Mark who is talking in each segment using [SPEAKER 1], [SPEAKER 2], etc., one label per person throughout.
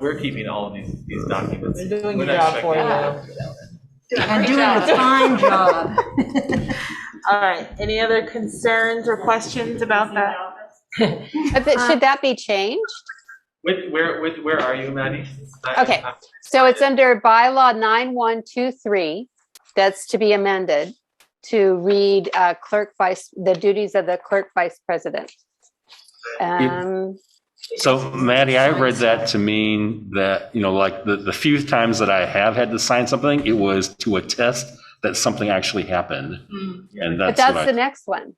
[SPEAKER 1] we're keeping all of these, these documents.
[SPEAKER 2] We're doing
[SPEAKER 1] We're
[SPEAKER 2] your
[SPEAKER 1] not
[SPEAKER 2] job for
[SPEAKER 1] checking
[SPEAKER 2] you.
[SPEAKER 1] them.
[SPEAKER 3] I'm doing a fine job.
[SPEAKER 2] All right, any other concerns or questions about that?
[SPEAKER 4] Uh, but Should that be changed?
[SPEAKER 1] Wait, Where, where, where are you, Maddie? I-
[SPEAKER 4] Okay.
[SPEAKER 1] I-
[SPEAKER 4] So it's under bylaw 9123, that's to be amended to read uh, clerk vice, the duties of the clerk vice president. Um,
[SPEAKER 5] So Maddie, I read that to mean that, you know, like the, the few times that I have had to sign something, it was to attest that something actually happened. And
[SPEAKER 4] But
[SPEAKER 5] that's
[SPEAKER 4] that's the
[SPEAKER 5] what I,
[SPEAKER 4] next one.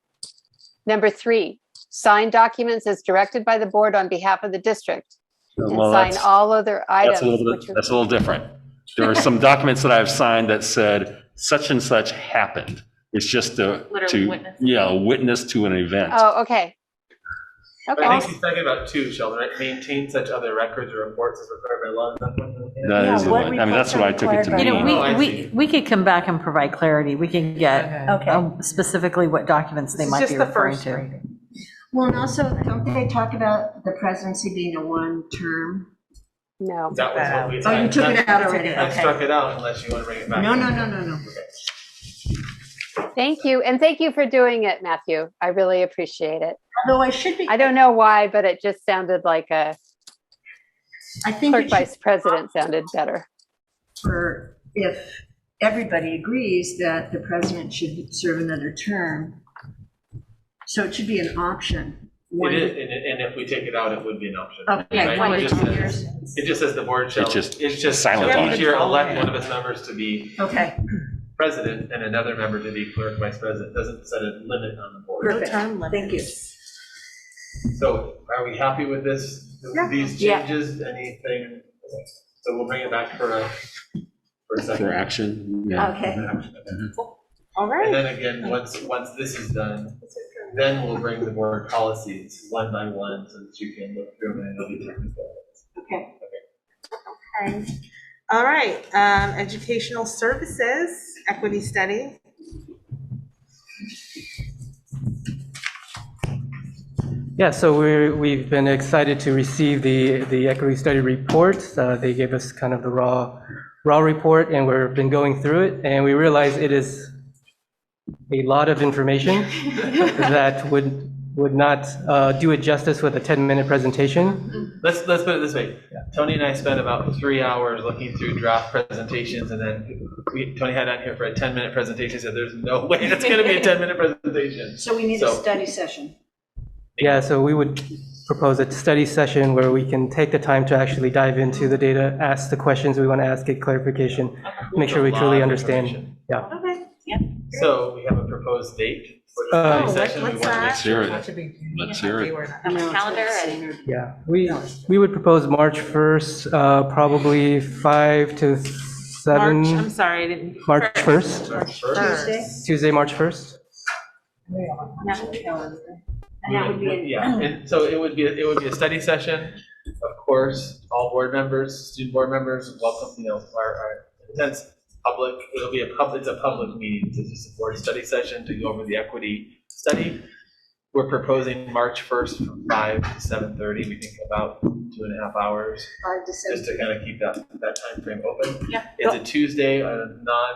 [SPEAKER 4] Number three, sign documents as directed by the board on behalf of the district and
[SPEAKER 5] well,
[SPEAKER 4] sign
[SPEAKER 5] that's,
[SPEAKER 4] all other items.
[SPEAKER 5] that's a little
[SPEAKER 4] which
[SPEAKER 5] bit,
[SPEAKER 4] are-
[SPEAKER 5] that's a little different. There are some documents that I've signed that said such and such happened. It's just to,
[SPEAKER 6] Literal
[SPEAKER 5] to,
[SPEAKER 6] witness.
[SPEAKER 5] yeah, a witness to an event.
[SPEAKER 4] Oh, okay.
[SPEAKER 1] I
[SPEAKER 4] Okay,
[SPEAKER 1] think she's talking about two, Sheldon, right? Maintain such other records or reports as required by law. Is that what we're looking at?
[SPEAKER 5] That is,
[SPEAKER 7] Yeah,
[SPEAKER 5] the
[SPEAKER 7] what
[SPEAKER 5] one. I mean,
[SPEAKER 7] reports
[SPEAKER 5] that's what
[SPEAKER 7] are
[SPEAKER 5] I took it to
[SPEAKER 7] required by
[SPEAKER 1] You
[SPEAKER 7] the
[SPEAKER 1] know,
[SPEAKER 5] mean.
[SPEAKER 1] we- Oh,
[SPEAKER 7] law?
[SPEAKER 1] I
[SPEAKER 8] We,
[SPEAKER 1] see.
[SPEAKER 8] we, we could come back and provide clarity. We can get
[SPEAKER 2] Okay.
[SPEAKER 7] Okay,
[SPEAKER 8] um, specifically what documents they
[SPEAKER 2] This is
[SPEAKER 8] might
[SPEAKER 2] just
[SPEAKER 8] be
[SPEAKER 2] the
[SPEAKER 8] referring
[SPEAKER 2] first
[SPEAKER 8] to.
[SPEAKER 2] reading.
[SPEAKER 7] well, and also,
[SPEAKER 3] Don't they talk about the presidency being a one-term?
[SPEAKER 4] no.
[SPEAKER 1] That was what we.
[SPEAKER 3] Oh, you took it out already,
[SPEAKER 1] I
[SPEAKER 3] okay.
[SPEAKER 1] struck it out unless you want to bring it back.
[SPEAKER 3] No, no, no, no, no.
[SPEAKER 4] Thank you. And thank you for doing it, Matthew. I really appreciate it.
[SPEAKER 3] Although I should be,
[SPEAKER 4] I don't know why, but it just sounded like a
[SPEAKER 3] I think
[SPEAKER 4] clerk
[SPEAKER 3] it should
[SPEAKER 4] vice president sounded better.
[SPEAKER 3] for if everybody agrees that the president should serve another term. So it should be an option.
[SPEAKER 1] It
[SPEAKER 3] One-
[SPEAKER 1] is, and, and if we take it out, it would be an option.
[SPEAKER 3] Okay,
[SPEAKER 1] right?
[SPEAKER 3] one
[SPEAKER 1] It
[SPEAKER 3] to
[SPEAKER 1] just
[SPEAKER 3] two
[SPEAKER 1] says-
[SPEAKER 3] years.
[SPEAKER 1] It just says the board shall.
[SPEAKER 5] It's just
[SPEAKER 1] it's just
[SPEAKER 5] silent
[SPEAKER 1] shall
[SPEAKER 5] on
[SPEAKER 1] Each
[SPEAKER 5] it.
[SPEAKER 1] year elect one of its members to be
[SPEAKER 3] Okay,
[SPEAKER 1] president and another member to be clerk, vice president. Doesn't set a limit on the board.
[SPEAKER 3] perfect. Thank you.
[SPEAKER 1] So are we happy with this,
[SPEAKER 3] Yeah.
[SPEAKER 1] these
[SPEAKER 3] Yeah.
[SPEAKER 1] changes, anything? So we'll bring it back for a, for a second.
[SPEAKER 5] For action, yeah.
[SPEAKER 3] Okay.
[SPEAKER 2] All
[SPEAKER 1] And
[SPEAKER 2] right,
[SPEAKER 1] then again, once, once this is done, then we'll bring the board policies one by one so that you can look through them and it'll be technical.
[SPEAKER 2] okay. All right, um, educational services, equity study.
[SPEAKER 9] Yeah, so we're, we've been excited to receive the, the equity study reports. Uh, They gave us kind of the raw, raw report, and we've been going through it, and we realize it is a lot of information that would, would not uh, do it justice with a 10-minute presentation.
[SPEAKER 1] Let's, let's put it this way. Tony and I spent about three hours looking through draft presentations and then we, Tony had on here for a ten minute presentation, said there's no way it's gonna be a ten minute presentation.
[SPEAKER 3] So we need a
[SPEAKER 1] So-
[SPEAKER 3] study session.
[SPEAKER 9] Yeah, so we would propose a study session where we can take the time to actually dive into the data, ask the questions we want to ask, get clarification, make sure we
[SPEAKER 1] There's a
[SPEAKER 9] truly
[SPEAKER 1] lot of
[SPEAKER 9] understand.
[SPEAKER 1] information.
[SPEAKER 9] Yeah.
[SPEAKER 2] Okay.
[SPEAKER 1] So we have a proposed date for
[SPEAKER 9] Uh,
[SPEAKER 2] Oh,
[SPEAKER 1] the study session.
[SPEAKER 2] what-
[SPEAKER 1] We
[SPEAKER 2] what's
[SPEAKER 1] want to
[SPEAKER 2] that?
[SPEAKER 1] make
[SPEAKER 5] Let's hear it.
[SPEAKER 2] Should be-
[SPEAKER 5] Let's hear it.
[SPEAKER 6] Calendar
[SPEAKER 9] Yeah, we, we would propose March 1st, uh, probably 5 to
[SPEAKER 2] March, I'm
[SPEAKER 9] 7,
[SPEAKER 2] sorry, I didn't.
[SPEAKER 9] March 1st,
[SPEAKER 1] sure it's first.
[SPEAKER 2] Tuesday?
[SPEAKER 9] Tuesday, March 1st.
[SPEAKER 3] That would be-
[SPEAKER 1] Yeah, and so it would be, it would be a study session, of course, all board members, student board members, welcome, you know, our, our intense public, it'll be a public, it's a public meeting, it's just a board study session to go over the equity study. We're proposing March first from five to seven thirty, we think about two and a half hours,
[SPEAKER 3] Five to seven.
[SPEAKER 1] just to kind of keep that, that frame open.
[SPEAKER 2] Yeah.
[SPEAKER 1] It's a Tuesday, a non,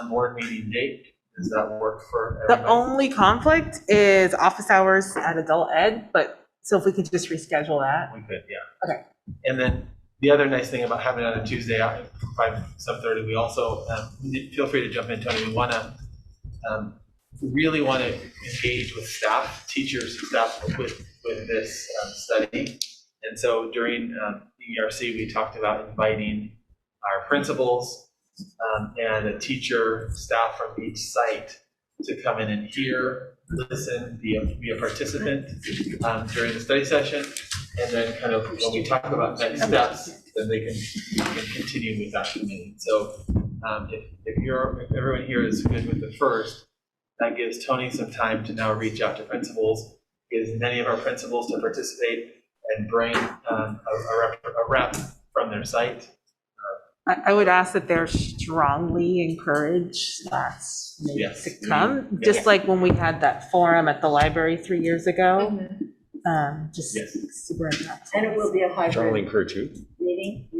[SPEAKER 1] non-board meeting date, does that work for
[SPEAKER 2] The
[SPEAKER 1] everybody?
[SPEAKER 2] only conflict is office hours at adult ed, but, so if we could just reschedule that.
[SPEAKER 1] We could, yeah.
[SPEAKER 2] Okay.
[SPEAKER 1] And then the other nice thing about having it on a Tuesday out at five, seven thirty, we also, um, feel free to jump in, Tony, we wanna, um, really wanna engage with staff, teachers and staff with, with this, um, study. And so during, um, ERC, we talked about inviting our principals, um, and a teacher, staff from each site to come in and hear, listen, be a, be a participant, um, during the study session. And then kind of when we talk about next steps, then they can, we can continue with that committee. So um, if, if you're, if everyone here is good with the first, that gives Tony some time to now reach out to principals, gives many of our principals to participate and bring um, a a rep, a rep from their site.
[SPEAKER 2] I, I would ask that they're strongly encouraged that's
[SPEAKER 1] Yes.
[SPEAKER 2] to
[SPEAKER 3] Mm-hmm.
[SPEAKER 2] come, just like when we had that forum at the library three years ago. Um, just
[SPEAKER 3] Mm-hmm.
[SPEAKER 1] Yes.
[SPEAKER 2] super impactful.
[SPEAKER 3] And it will be a hybrid.
[SPEAKER 5] encourage you.
[SPEAKER 3] meeting.